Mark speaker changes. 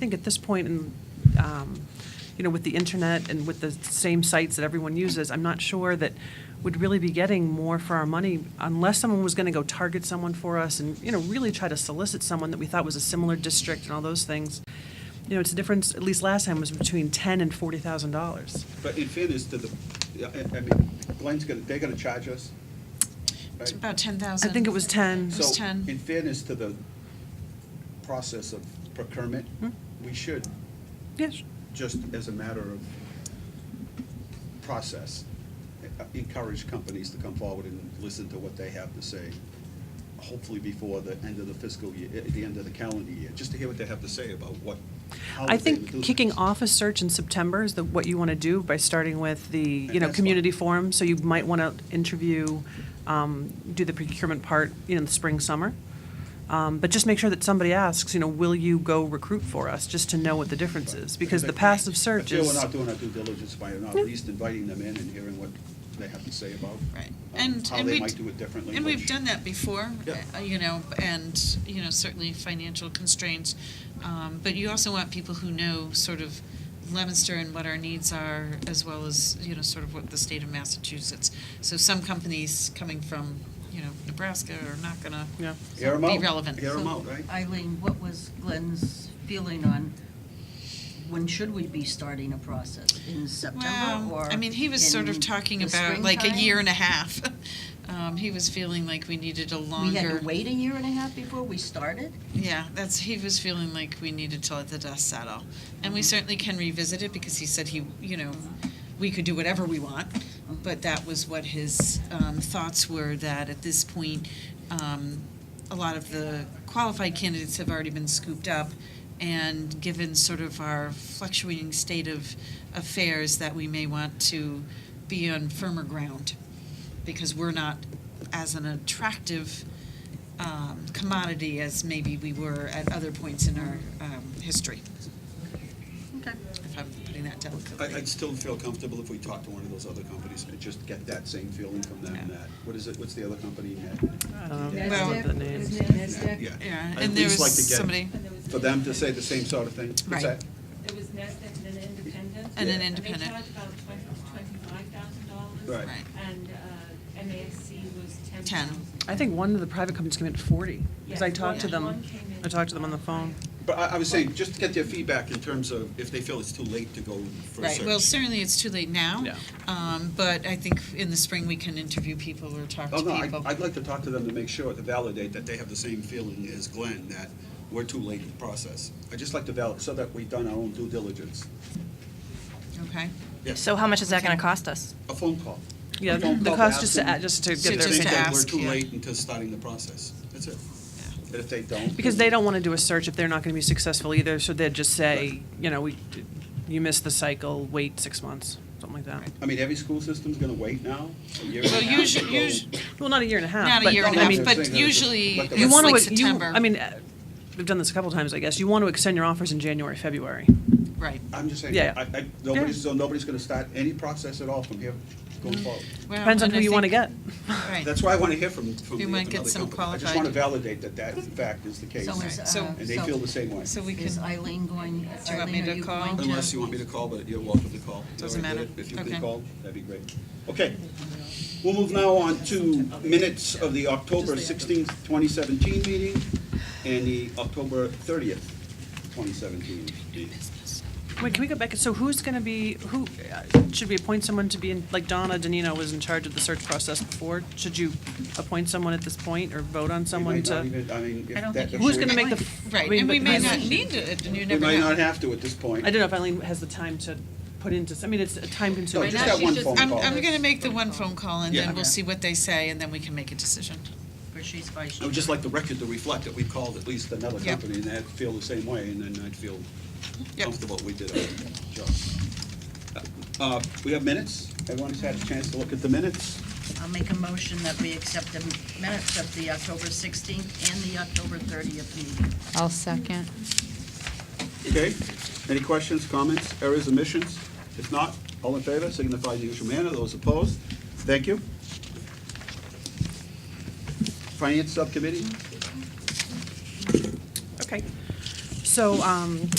Speaker 1: think at this point, in, um, you know, with the internet and with the same sites that everyone uses, I'm not sure that we'd really be getting more for our money unless someone was going to go target someone for us and, you know, really try to solicit someone that we thought was a similar district and all those things. You know, it's a difference, at least last time, was between ten and forty thousand dollars.
Speaker 2: But in fairness to the, I- I mean, Glenn's gonna, they're gonna charge us,
Speaker 3: It's
Speaker 2: right?
Speaker 3: about ten thousand.
Speaker 1: I think it was 10.
Speaker 3: It was ten.
Speaker 2: So in fairness to the process of procurement,
Speaker 1: Hmm.
Speaker 2: we should,
Speaker 1: Yes.
Speaker 2: just as a matter of process, uh, encourage companies to come forward and listen to what they have to say, hopefully before the end of the fiscal year, eh, the end of the calendar year, just to hear what they have to say about what, how
Speaker 1: I
Speaker 2: they would do
Speaker 1: think kicking
Speaker 2: things.
Speaker 1: off a search in September is the, what you want to do by starting with the, you know,
Speaker 2: That's fine.
Speaker 1: community forum. So you might want to interview, um, do the procurement part, you know, in the spring, summer. Um, but just make sure that somebody asks, you know, will you go recruit for us, just to know what the difference is? Because the passive
Speaker 2: I
Speaker 1: search
Speaker 2: feel
Speaker 1: is,
Speaker 2: we're not doing our due diligence by not at least inviting them in and hearing what they have to say about.
Speaker 3: Right,
Speaker 2: um,
Speaker 3: and,
Speaker 2: How
Speaker 3: and
Speaker 2: they
Speaker 3: we.
Speaker 2: might do it differently.
Speaker 3: And we've
Speaker 2: which-
Speaker 3: done that before,
Speaker 2: Yeah.
Speaker 3: uh, you know, and, you know, certainly financial constraints. Um, But you also want people who know sort of Leominster and what our needs are, as well as, you know, sort of what the state of Massachusetts. So some companies coming from, you know, Nebraska are not gonna
Speaker 1: yeah.
Speaker 2: Air 'em
Speaker 3: be
Speaker 2: out,
Speaker 3: relevant.
Speaker 2: air 'em
Speaker 4: So,
Speaker 2: out, right?
Speaker 4: Eileen, what was Glenn's feeling on, when should we be starting a process? In September
Speaker 3: Well,
Speaker 4: or?
Speaker 3: I mean, he was sort of
Speaker 4: in
Speaker 3: talking
Speaker 4: the
Speaker 3: about like a year and a
Speaker 4: springtime?
Speaker 3: half. Um, He was feeling like we needed a
Speaker 4: We
Speaker 3: longer.
Speaker 4: had to wait a year and a half before we started?
Speaker 3: Yeah, that's, he was feeling like we needed to let the dust settle. And we certainly can revisit it because he said he, you know, we could do whatever we want. But that was what his um, thoughts were, that at this point, um, a lot of the qualified candidates have already been scooped up. And given sort of our fluctuating state of affairs, that we may want to be on firmer ground because we're not as an attractive um, commodity as maybe we were at other points in our um, history,
Speaker 4: Okay.
Speaker 3: if I'm putting that
Speaker 2: I,
Speaker 3: delicately.
Speaker 2: I'd still feel comfortable if we talked to one of those other companies and just get that same feeling from them,
Speaker 3: Yeah.
Speaker 2: that, what is it, what's the other company, Net?
Speaker 1: I don't know.
Speaker 2: Yeah.
Speaker 3: Well-
Speaker 1: Love the name.
Speaker 5: NASDAQ.
Speaker 2: Yeah.
Speaker 3: Yeah,
Speaker 2: I'd at
Speaker 3: and there
Speaker 2: least like to
Speaker 3: was
Speaker 2: get-
Speaker 3: somebody,
Speaker 5: And there was
Speaker 2: For them to say the same sort of thing. What's
Speaker 3: Right.
Speaker 2: that?
Speaker 5: There was NASDAQ and then independent.
Speaker 3: And then
Speaker 5: And
Speaker 3: independent.
Speaker 5: they charged about twenty, twenty-five thousand dollars.
Speaker 2: Right.
Speaker 3: right,
Speaker 5: And uh, MASC was ten
Speaker 3: Ten.
Speaker 5: thousand.
Speaker 1: I think one of the private companies came in at forty, because I
Speaker 5: Yes,
Speaker 1: talked to
Speaker 5: one-
Speaker 1: them,
Speaker 5: one came in
Speaker 1: I talked to them on the phone.
Speaker 2: But I, I was saying, just to get their feedback in terms of if they feel it's too late to go for a
Speaker 3: right. Well,
Speaker 2: search.
Speaker 3: certainly it's too late now.
Speaker 1: Yeah.
Speaker 3: um, But I think in the spring, we can interview people or talk to
Speaker 2: Oh, no,
Speaker 3: people.
Speaker 2: I, I'd like to talk to them to make sure, to validate that they have the same feeling as Glenn, that we're too late in the process. I'd just like to validate, so that we've done our own due diligence.
Speaker 3: Okay,
Speaker 2: Yes,
Speaker 6: So how much is that going to cost us?
Speaker 2: a phone call. A
Speaker 1: Yeah,
Speaker 2: phone
Speaker 1: the
Speaker 2: call
Speaker 1: cost
Speaker 2: ask
Speaker 1: just to,
Speaker 2: them
Speaker 1: add- just to
Speaker 2: if they
Speaker 1: get their
Speaker 3: Just
Speaker 2: think
Speaker 3: to
Speaker 1: feedback.
Speaker 2: that We're
Speaker 3: ask,
Speaker 2: too
Speaker 3: yeah.
Speaker 2: late into starting the process. That's it.
Speaker 3: yeah.
Speaker 2: And if they don't.
Speaker 1: Because
Speaker 2: then-
Speaker 1: they don't want to do a search if they're not going to be successful either, so they'd just say,
Speaker 2: Right.
Speaker 1: you know, we, you missed the cycle, wait six months, something like that.
Speaker 2: I mean, every school system's gonna wait now, a year and a
Speaker 3: Well,
Speaker 2: half to
Speaker 3: usually,
Speaker 2: go.
Speaker 1: Well, not a year and a half.
Speaker 3: not a
Speaker 1: but-
Speaker 3: year and a
Speaker 1: I
Speaker 2: I'm
Speaker 3: half,
Speaker 1: mean,
Speaker 2: saying that
Speaker 3: but
Speaker 2: it's
Speaker 3: usually
Speaker 2: like a-
Speaker 1: You
Speaker 3: it's
Speaker 1: want
Speaker 3: like
Speaker 1: to, you,
Speaker 3: September.
Speaker 1: I mean, uh, we've done this a couple times, I guess, you want to extend your offers in January, February.
Speaker 3: Right.
Speaker 2: I'm just saying,
Speaker 1: Yeah. Mm-hmm.
Speaker 2: I, I, nobody's, so nobody's gonna start any process at all from here going forward.
Speaker 3: Well,
Speaker 1: Depends on
Speaker 3: and
Speaker 1: who
Speaker 3: I
Speaker 1: you want to
Speaker 3: think-
Speaker 1: get.
Speaker 3: Right.
Speaker 2: That's why I wanna hear from, from the
Speaker 3: We
Speaker 2: from
Speaker 3: might
Speaker 2: another
Speaker 3: get
Speaker 2: company.
Speaker 3: some
Speaker 2: I just
Speaker 3: qualified-
Speaker 2: wanna validate that that in fact is the case,
Speaker 4: So
Speaker 2: and
Speaker 4: is,
Speaker 3: so-
Speaker 4: uh,
Speaker 2: they feel the same way.
Speaker 3: So we can.
Speaker 4: Is Eileen going,
Speaker 3: you want me
Speaker 4: Eileen,
Speaker 3: to
Speaker 4: are you
Speaker 3: call?
Speaker 4: going to?
Speaker 2: Unless you want me to call, but you're welcome to call. You
Speaker 3: Doesn't
Speaker 2: already did
Speaker 3: matter.
Speaker 2: it. If you could
Speaker 3: Okay.
Speaker 2: call, that'd be great. Okay. We'll move now on to minutes of the October sixteenth, twenty seventeen meeting and the October thirtieth, twenty seventeen meeting.
Speaker 1: Wait, can we go back, so who's going to be, who, uh, should we appoint someone to be in, like Donna Danino was in charge of the search process before? Should you appoint someone at this point, or vote on
Speaker 2: We
Speaker 1: someone
Speaker 2: might not
Speaker 1: to?
Speaker 2: even- I mean, if
Speaker 4: I don't
Speaker 2: that-
Speaker 4: think
Speaker 1: Who's
Speaker 2: if
Speaker 1: going to
Speaker 2: we-
Speaker 1: make the? f- I
Speaker 3: Right,
Speaker 1: mean,
Speaker 3: and we
Speaker 1: but
Speaker 3: may
Speaker 1: Eileen-
Speaker 3: not need it, and you
Speaker 2: We
Speaker 3: never know.
Speaker 2: might not have to at this point.
Speaker 1: I don't know if Eileen has the time to put into, I mean, it's a
Speaker 2: No,
Speaker 1: time-consuming.
Speaker 2: just that one phone
Speaker 3: I'm,
Speaker 2: call.
Speaker 3: I'm gonna make the one phone call and
Speaker 2: Yeah.
Speaker 3: then we'll see what they say and then we can make a decision.
Speaker 4: Or she's vice
Speaker 2: I
Speaker 4: chair?
Speaker 2: would just like the record to reflect that we called at least another
Speaker 3: Yeah.
Speaker 2: company and they'd feel the same way, and then I'd feel
Speaker 3: Yep.
Speaker 2: comfortable we did our job. Uh, We have minutes. Everyone's had a chance to look at the minutes.
Speaker 4: I'll make a motion that we accept the minutes of the October 16th and the October 30th meeting.
Speaker 7: I'll second.
Speaker 2: Okay? Any questions, comments, errors, omissions? If not, all in favor, signify in the usual manner. Those opposed, thank you. Finance Subcommittee?
Speaker 1: Okay. So um,